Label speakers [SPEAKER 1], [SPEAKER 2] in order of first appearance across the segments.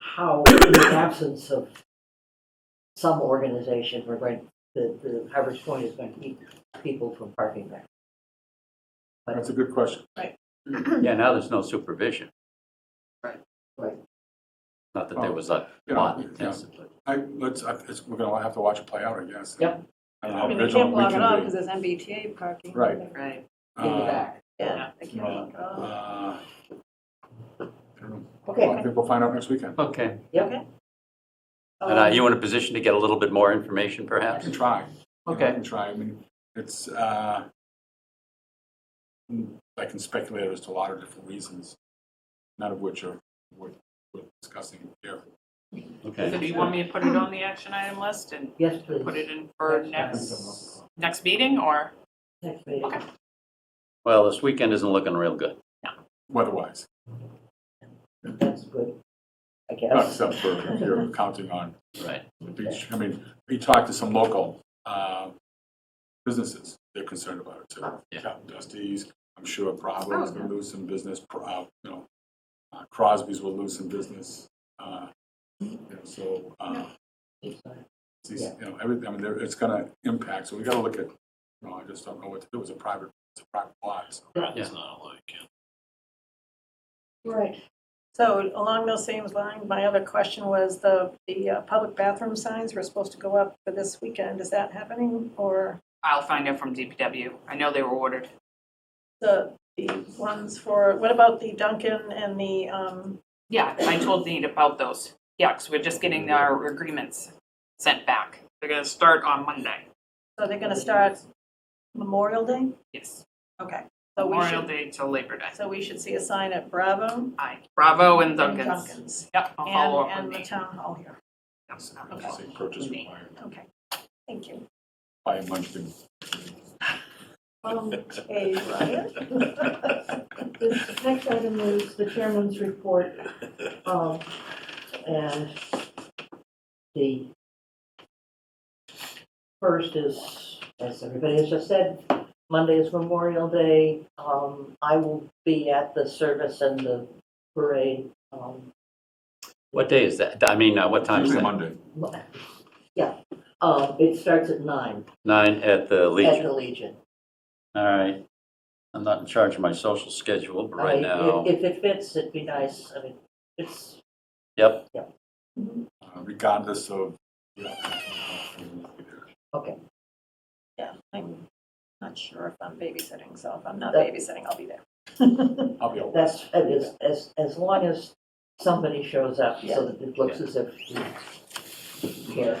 [SPEAKER 1] how, in the absence of some organization, we're going, the, the Harvest Point is going to keep people from parking there.
[SPEAKER 2] That's a good question.
[SPEAKER 3] Yeah, now there's no supervision.
[SPEAKER 4] Right.
[SPEAKER 1] Right.
[SPEAKER 3] Not that there was a
[SPEAKER 2] Oh. Yeah,
[SPEAKER 3] lot
[SPEAKER 2] yeah.
[SPEAKER 3] intensively.
[SPEAKER 2] I, let's, I- it's, we're gonna have to watch it play out, I guess.
[SPEAKER 1] Yep.
[SPEAKER 2] I don't know
[SPEAKER 5] I
[SPEAKER 2] how
[SPEAKER 5] mean, they
[SPEAKER 2] vigilant
[SPEAKER 5] can't
[SPEAKER 2] we
[SPEAKER 5] block it off
[SPEAKER 2] can
[SPEAKER 5] because
[SPEAKER 2] be.
[SPEAKER 5] there's MBTA parking.
[SPEAKER 2] Right.
[SPEAKER 4] Right.
[SPEAKER 1] In the
[SPEAKER 2] Uh,
[SPEAKER 1] back.
[SPEAKER 4] Yeah.
[SPEAKER 5] They can't block it off.
[SPEAKER 2] uh, I don't know. Well,
[SPEAKER 1] Okay,
[SPEAKER 2] I think we'll find out next weekend.
[SPEAKER 3] Okay.
[SPEAKER 1] Yep. Um,
[SPEAKER 3] And are Uh, you in a position to get a little bit more information
[SPEAKER 2] I
[SPEAKER 3] perhaps?
[SPEAKER 2] can try. You know, I
[SPEAKER 3] Okay.
[SPEAKER 2] can try. I mean, it's, uh, mm, I can speculate as to a lot of different reasons, none of which are worth, worth discussing here.
[SPEAKER 3] Okay.
[SPEAKER 4] So do you want me to put it on the action item list and
[SPEAKER 1] yes, please.
[SPEAKER 4] put it in for
[SPEAKER 1] Next
[SPEAKER 4] next, next meeting or?
[SPEAKER 1] Next meeting.
[SPEAKER 4] Okay.
[SPEAKER 3] Well, this weekend isn't looking real good.
[SPEAKER 2] Weather-wise,
[SPEAKER 1] That's good, I
[SPEAKER 2] not
[SPEAKER 1] guess.
[SPEAKER 2] except for if you're counting on
[SPEAKER 3] Right.
[SPEAKER 2] the beach. I mean, we talked to some local uh, businesses, they're concerned about it too.
[SPEAKER 3] Yeah.
[SPEAKER 2] Captain Dusty's, I'm sure Providence will lose some business, Pro- uh, you know, uh, Crosby's will lose some business. uh, you know, So, uh, these- you know, everything, I mean, there- it's gonna impact, so we gotta look at, you know, I just don't know what to do, it's a private, it's a private lot, so.
[SPEAKER 3] Yeah.
[SPEAKER 6] not a lot of kids.
[SPEAKER 1] Right.
[SPEAKER 5] So along those same lines, my other question was the, the uh, public bathroom signs were supposed to go up for this weekend. Is that happening? Or
[SPEAKER 4] I'll find out from DPW. I know they were ordered.
[SPEAKER 5] the, the ones for, what about the Duncan and the, um,
[SPEAKER 4] Yeah, I told Nate about those. Yeah, 'cause we're just getting our agreements sent back. They're gonna start on Monday.
[SPEAKER 5] so they're going to start Memorial Day?
[SPEAKER 4] Yes.
[SPEAKER 5] Okay. So we
[SPEAKER 4] Memorial
[SPEAKER 5] should,
[SPEAKER 4] Day till Labor Day.
[SPEAKER 5] so we should see a sign at Bravo
[SPEAKER 4] Aye. Bravo and
[SPEAKER 5] and
[SPEAKER 4] Duncan's.
[SPEAKER 5] Duncan's.
[SPEAKER 4] Yep, I'll follow up
[SPEAKER 5] And, and
[SPEAKER 4] with
[SPEAKER 5] the
[SPEAKER 4] Nate.
[SPEAKER 5] town hall here.
[SPEAKER 4] Yes, I'll
[SPEAKER 2] I just say purchase required
[SPEAKER 5] Okay. Thank you.
[SPEAKER 2] by Munchkin.
[SPEAKER 5] Um, okay, Ryan?
[SPEAKER 1] The next item is the chairman's report, um, and the first is, as everybody has just said, Monday is Memorial Day. Um, I will be at the service and the parade, um,
[SPEAKER 3] What day is that? I mean, uh, what time is
[SPEAKER 2] Usually
[SPEAKER 3] that?
[SPEAKER 2] Monday.
[SPEAKER 1] yeah. Um, it starts at nine
[SPEAKER 3] Nine at the
[SPEAKER 1] at
[SPEAKER 3] Legion.
[SPEAKER 1] the Legion.
[SPEAKER 3] All right. I'm not in charge of my social schedule, but
[SPEAKER 1] I-
[SPEAKER 3] right
[SPEAKER 1] if-
[SPEAKER 3] now,
[SPEAKER 1] If it fits, it'd be nice, I mean, it's,
[SPEAKER 3] yep.
[SPEAKER 2] uh, regardless of. Yeah.
[SPEAKER 1] okay,
[SPEAKER 5] Yeah, I'm not sure if I'm babysitting, so if I'm not
[SPEAKER 1] That-
[SPEAKER 5] babysitting, I'll be there.
[SPEAKER 2] I'll be all right.
[SPEAKER 1] that's, it is- as, as long as somebody shows up, so that it looks as if you care.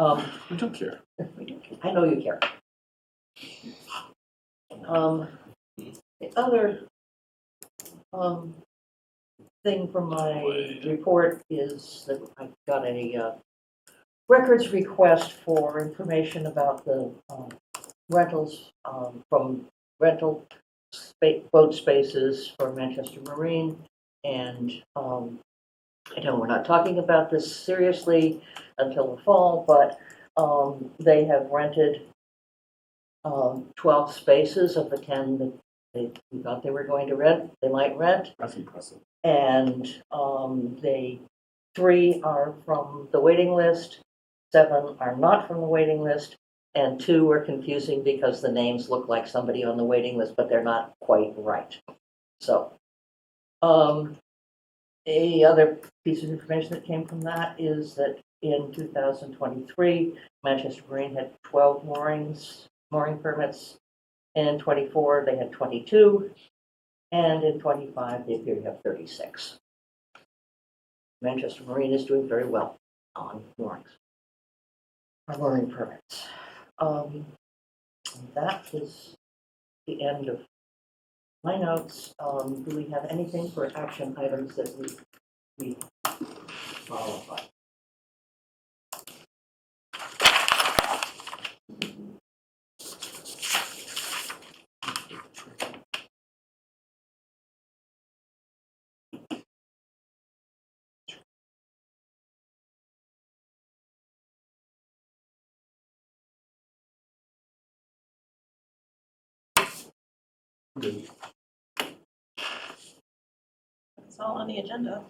[SPEAKER 1] Um,
[SPEAKER 2] We don't care.
[SPEAKER 1] I know you care. Um, the other, um, thing from my report is that I got a, uh, records request for information about the, um, rentals, um, from rental spa- boat spaces for Manchester Marine. And, um, I know we're not talking about this seriously until the fall, but um, they have rented um, 12 spaces of the 10 that they we thought they were going to rent, they might rent.
[SPEAKER 2] That's impressive.
[SPEAKER 1] And um, they, three are from the waiting list, seven are not from the waiting list, and two are confusing because the names look like somebody on the waiting list, but they're not quite right. So, um, a other piece of information that came from that is that in 2023, Manchester Marine had 12 moorings, mooring permits, and in 24, they had 22, and in 25, they appear to have 36. Manchester Marine is doing very well on moorings, or mooring permits. Um, and That is the end of my notes. Um, Do we have anything for action items that we, we qualify?
[SPEAKER 5] It's all on the agenda.